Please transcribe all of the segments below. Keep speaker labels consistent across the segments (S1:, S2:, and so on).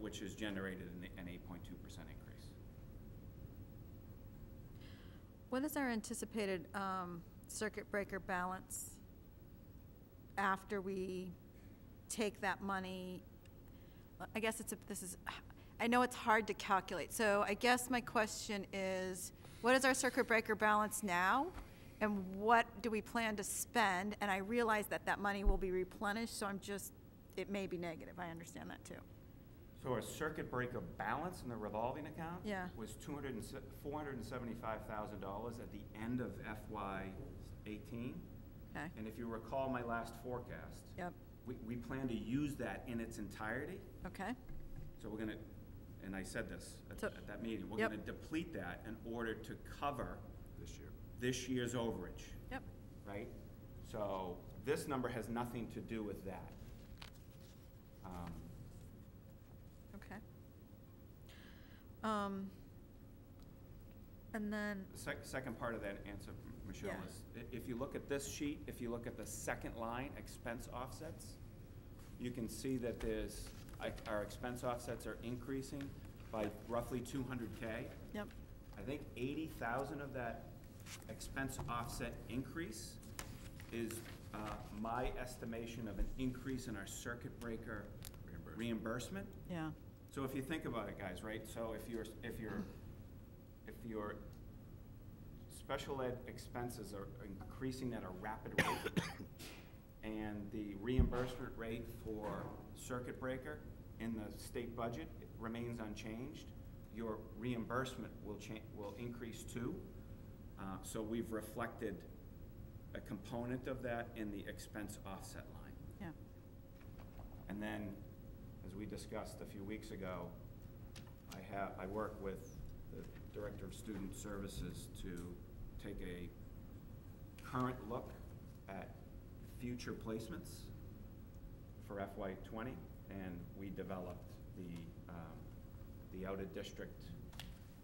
S1: which has generated an, an eight point two percent increase.
S2: What is our anticipated um, circuit breaker balance after we take that money? I guess it's, a this is, I know it's hard to calculate, so I guess my question is, what is our circuit breaker balance now? And what do we plan to spend? And I realize that that money will be replenished, so I'm just, it may be negative, I understand that too.
S1: So our circuit breaker balance in the revolving account
S2: Yeah.
S1: was two hundred and four hundred and seventy-five thousand dollars at the end of FY eighteen.
S2: Okay,
S1: And if you recall my last forecast,
S2: yep,
S1: we, we plan to use that in its entirety.
S2: okay,
S1: So we're gonna, and I said this at,
S2: So-
S1: at that meeting, we're
S2: yep.
S1: gonna deplete that in order to cover
S3: this year.
S1: this year's overage,
S2: yep,
S1: right? So this number has nothing to do with that. Um,
S2: okay. Um, And then,
S1: The sec- second part of that answer, Michelle,
S2: Yeah.
S1: is i- if you look at this sheet, if you look at the second line, expense offsets, you can see that there's, I- our expense offsets are increasing by roughly two hundred K.
S2: yep,
S1: I think eighty thousand of that expense offset increase is, uh, my estimation of an increase in our circuit breaker
S3: Reimbursement.
S1: reimbursement.
S2: yeah,
S1: So if you think about it, guys, right, so if your, if your, if your special ed expenses are increasing at a rapid rate, and the reimbursement rate for circuit breaker in the state budget remains unchanged, your reimbursement will cha, will increase too. Uh, so we've reflected a component of that in the expense offset line.
S2: yeah.
S1: And then, as we discussed a few weeks ago, I have, I work with the Director of Student Services to take a current look at future placements for FY twenty, and we developed the, um, the out-of-district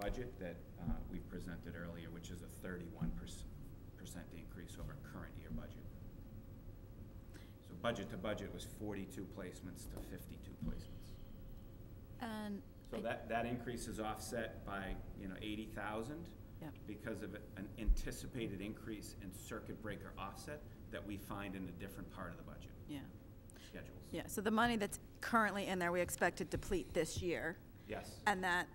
S1: budget that, uh, we presented earlier, which is a thirty-one percent increase over current year budget. So budget to budget was forty-two placements to fifty-two placements.
S2: And.
S1: So that, that increase is offset by, you know, eighty thousand
S2: Yep,
S1: because of an anticipated increase in circuit breaker offset that we find in a different part of the budget
S2: yeah,
S1: schedules.
S2: yeah, so the money that's currently in there, we expect to deplete this year,
S1: Yes,
S2: and that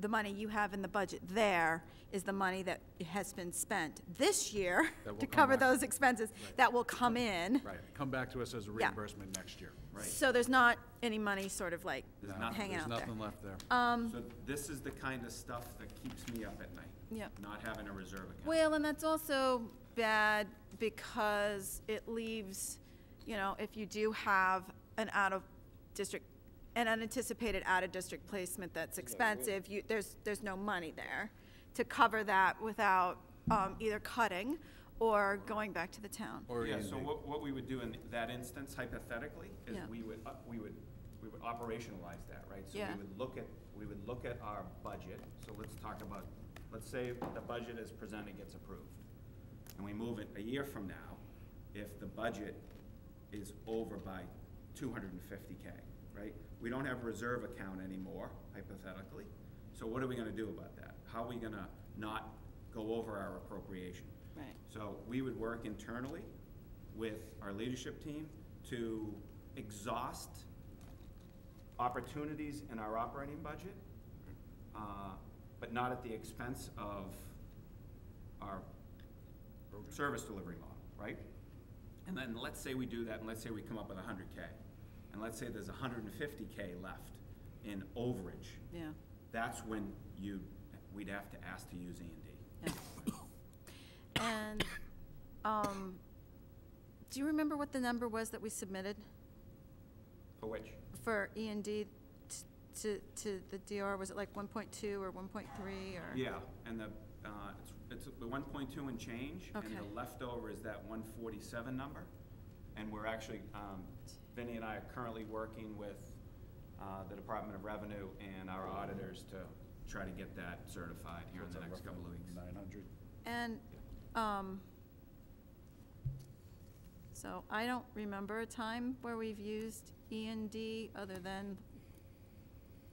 S2: the money you have in the budget there is the money that has been spent this year
S3: That will
S2: to
S3: come
S2: cover
S3: back.
S2: those expenses
S3: Right.
S2: that will come in.
S3: Right, come back to us as a
S2: Yeah.
S3: reimbursement next year.
S1: right.
S2: So there's not any money sort of like
S1: There's
S3: No,
S1: nothing-
S2: hanging out there.
S3: There's nothing left there.
S2: Um,
S1: So this is the kind of stuff that keeps me up at night.
S2: Yep.
S1: Not having a reserve account.
S2: Well, and that's also bad because it leaves, you know, if you do have an out-of-district, an unanticipated out-of-district placement that's expensive, you, there's, there's no money there to cover that without um, either cutting or going back to the town.
S3: Or
S1: Yeah, so
S3: anything.
S1: what, what we would do in that instance hypothetically is
S2: Yeah.
S1: we would, up- we would, we would operationalize that, right? So
S2: Yeah.
S1: we would look at, we would look at our budget, so let's talk about, let's say the budget as presented gets approved. And we move it a year from now, if the budget is over by two hundred and fifty K, right? We don't have a reserve account anymore hypothetically, so what are we gonna do about that? How are we gonna not go over our appropriation?
S2: Right.
S1: So we would work internally with our leadership team to exhaust opportunities in our operating budget, uh, but not at the expense of our service delivery model, right? And then let's say we do that, and let's say we come up with hundred K, and let's say there's hundred and fifty K left in overage.
S2: Yeah,
S1: That's when you, we'd have to ask to use E and D.
S2: yeah. And, um, do you remember what the number was that we submitted
S1: For which?
S2: for E and D t- to, to the DR? Was it like 1.2 or 1.3 or?
S1: Yeah, and the, uh, it's, it's the one point two and change, and
S2: Okay.
S1: the leftover is that one forty-seven number. And we're actually, um, Vinnie and I are currently working with, uh, the Department of Revenue and our auditors to try to get that certified here in the next couple of weeks.
S3: Nine hundred.
S2: And, um, so I don't remember a time where we've used E and D other than